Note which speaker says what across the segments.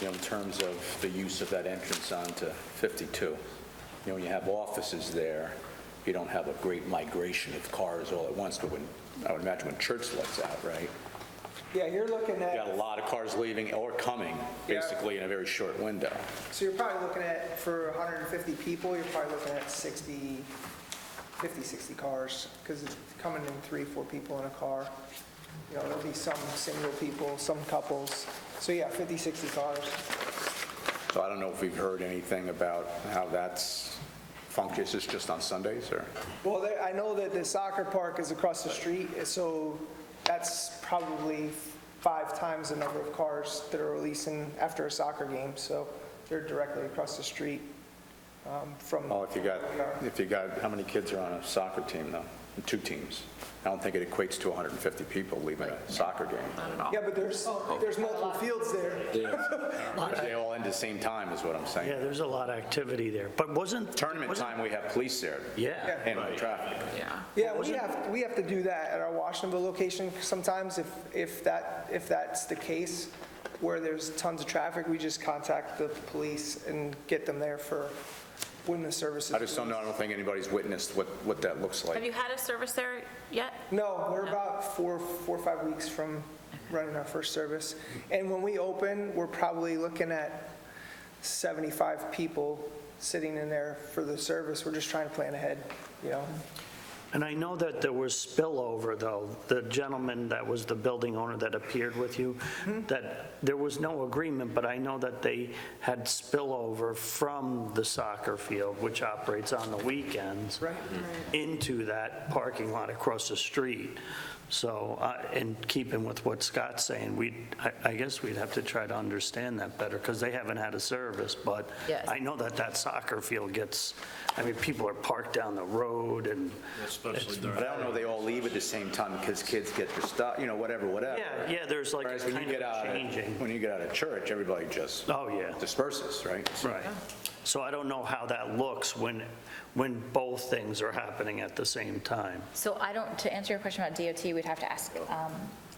Speaker 1: you know, in terms of the use of that entrance onto 52. You know, when you have offices there, you don't have a great migration of cars all at once, but when, I would imagine when church lets out, right?
Speaker 2: Yeah, you're looking
Speaker 1: You got a
Speaker 2: at,
Speaker 1: lot of cars leaving or coming,
Speaker 2: Yeah.
Speaker 1: basically, in a very short window.
Speaker 2: so you're probably looking at, for 150 people, you're probably looking at 60, 50, 60 cars, because it's coming in three, four people in a car. You know, there'll be some single people, some couples. So yeah, 50, 60 cars.
Speaker 1: So I don't know if we've heard anything about how that's functions, is this just on Sundays, or?
Speaker 2: Well, there- I know that the soccer park is across the street, so that's probably five times the number of cars that are releasing after a soccer game, so they're directly across the street um, from.
Speaker 1: Oh, if you got,
Speaker 2: where we are.
Speaker 1: if you got, how many kids are on a soccer team, though? Two teams. I don't think it equates to 150 people leaving a soccer game.
Speaker 2: Yeah, but there's, there's multiple fields there.
Speaker 1: They all end at the same time, is what I'm
Speaker 3: Yeah,
Speaker 1: saying.
Speaker 3: there's a lot of activity there, but wasn't...
Speaker 1: Tournament
Speaker 3: wasn't-
Speaker 1: time, we have police there
Speaker 3: Yeah.
Speaker 1: handling traffic.
Speaker 2: Yeah, we have, we have to do that at our Washingtonville location sometimes if, if that, if that's the case, where there's tons of traffic, we just contact the police and get them there for when the services.
Speaker 1: I just don't know, I don't think anybody's witnessed what, what that looks
Speaker 4: Have
Speaker 1: like.
Speaker 4: you had a service there yet?
Speaker 2: No, we're about four, four or five weeks from running our first service. And when we open, we're probably looking at 75 people sitting in there for the service. We're just trying to plan ahead, you know?
Speaker 3: And I know that there was spillover, though. The gentleman that was the building owner that appeared with you, that there was no agreement, but I know that they had spillover from the soccer field, which operates on the weekends.
Speaker 2: Right.
Speaker 3: Into that parking lot across the street. So, uh, in keeping with what Scott's saying, we, I guess we'd have to try to understand that better, because they haven't had a service, but
Speaker 4: Yes.
Speaker 3: I know that that soccer field gets, I mean, people are parked down the road and
Speaker 5: Especially during,
Speaker 1: But I don't know, they all leave at the same time because kids get their stuff, you know, whatever, whatever.
Speaker 3: Yeah, yeah, there's like a
Speaker 1: Whereas when you
Speaker 3: kind
Speaker 1: get out,
Speaker 3: of
Speaker 1: of-
Speaker 3: changing.
Speaker 1: when you get out of church, everybody just
Speaker 3: Oh, yeah,
Speaker 1: disperses, right?
Speaker 3: right. So I don't know how that looks when, when both things are happening at the same time.
Speaker 6: So I don't, to answer your question about DOT, we'd have to ask um,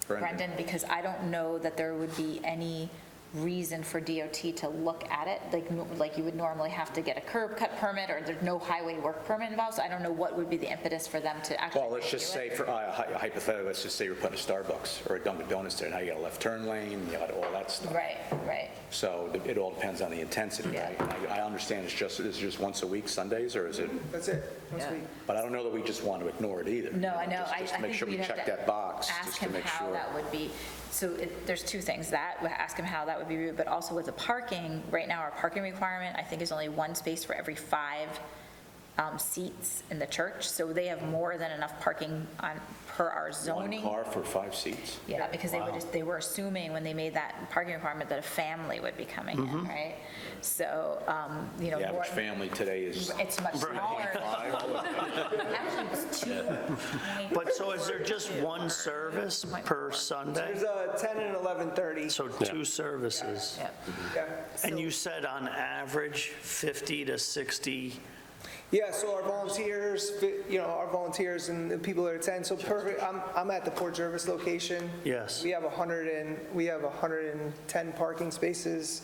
Speaker 1: Brendan.
Speaker 6: Brendan, because I don't know that there would be any reason for DOT to look at it, like, no- like you would normally have to get a curb cut permit, or there's no highway work permit involved, so I don't know what would be the impetus for them to actually.
Speaker 1: Well, let's just
Speaker 6: review
Speaker 1: say,
Speaker 6: it.
Speaker 1: for uh, hy- hypothetically, let's just say you're putting a Starbucks or a Dunkin' Donuts there, now you got a left turn lane, you got all that stuff.
Speaker 6: Right, right.
Speaker 1: So it- it all depends on the intensity, right? And I I understand it's just, it's just once a week, Sundays, or is it,
Speaker 2: That's it. Once we-
Speaker 1: but I don't know that we just want to ignore it either.
Speaker 6: No, I
Speaker 1: You
Speaker 6: know,
Speaker 1: just-
Speaker 6: I I
Speaker 1: Just make
Speaker 6: think
Speaker 1: sure
Speaker 6: we'd
Speaker 1: we
Speaker 6: have
Speaker 1: check
Speaker 6: to
Speaker 1: that box,
Speaker 6: ask
Speaker 1: just to
Speaker 6: him
Speaker 1: make
Speaker 6: how
Speaker 1: sure.
Speaker 6: that would be, so it- there's two things, that, we ask him how that would be, viewed, but also with the parking, right now, our parking requirement, I think, is only one space for every five um, seats in the church, so they have more than enough parking on, per our
Speaker 1: One
Speaker 6: zoning.
Speaker 1: car for five seats?
Speaker 6: Yeah, because they were just, they were assuming when they made that parking requirement that a family would be coming in, right? So, um, you know.
Speaker 1: Mm-hmm. The average
Speaker 6: more-
Speaker 1: family today is
Speaker 6: It's much smaller. Actually, it's two.
Speaker 3: But so is there just one service per Sunday?
Speaker 2: There's a 10 and 11:30.
Speaker 3: So two services?
Speaker 6: Yep.
Speaker 2: Yeah.
Speaker 3: And you said on average 50 to 60?
Speaker 2: Yeah, so our volunteers, you know, our volunteers and the people that attend, so per, I'm, I'm at the Port Jervis location.
Speaker 3: Yes.
Speaker 2: We have 100 and, we have 110 parking spaces,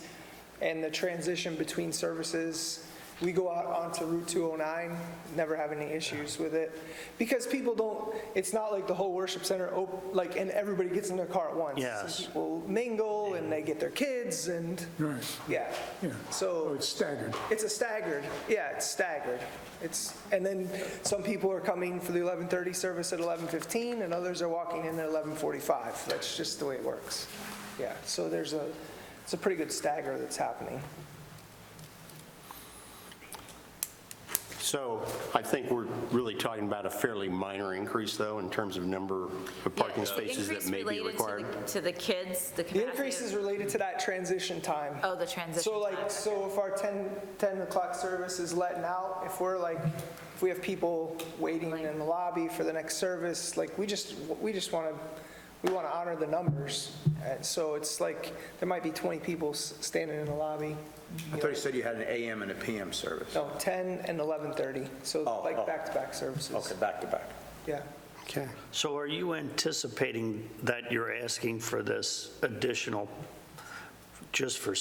Speaker 2: and the transition between services, we go out onto Route 209, never have any issues with it. Because people don't, it's not like the whole worship center, op- like, and everybody gets in their car at once.
Speaker 3: Yes.
Speaker 2: Some People mingle, and they get their kids, and,
Speaker 7: Right,
Speaker 2: yeah.
Speaker 7: yeah.
Speaker 2: So.
Speaker 7: Oh, it's staggered.
Speaker 2: It's a staggered, yeah, it's staggered. It's, and then some people are coming for the 11:30 service at 11:15, and others are walking in at 11:45. That's just the way it works. Yeah, so there's a, it's a pretty good stagger that's happening.
Speaker 8: So I think we're really talking about a fairly minor increase, though, in terms of number of parking spaces that may be required.
Speaker 4: To the kids, the capacity.
Speaker 2: The increase
Speaker 4: of-
Speaker 2: is related to that transition time.
Speaker 4: Oh, the transition.
Speaker 2: So like,
Speaker 4: time.
Speaker 2: so if our 10, 10 o'clock service is letting out, if we're like, if we have people waiting in the lobby for the next service, like, we just, we just want to, we want to honor the numbers. And so it's like, there might be 20 people s- standing in the lobby,
Speaker 1: I thought you said you had an AM and a PM service.
Speaker 2: no, 10 and 11:30, so
Speaker 1: Oh,
Speaker 2: like
Speaker 1: oh.
Speaker 2: back-to-back services.
Speaker 1: Okay, back to back.
Speaker 2: Yeah.
Speaker 8: Okay.
Speaker 3: So are you anticipating that you're asking for this additional, just for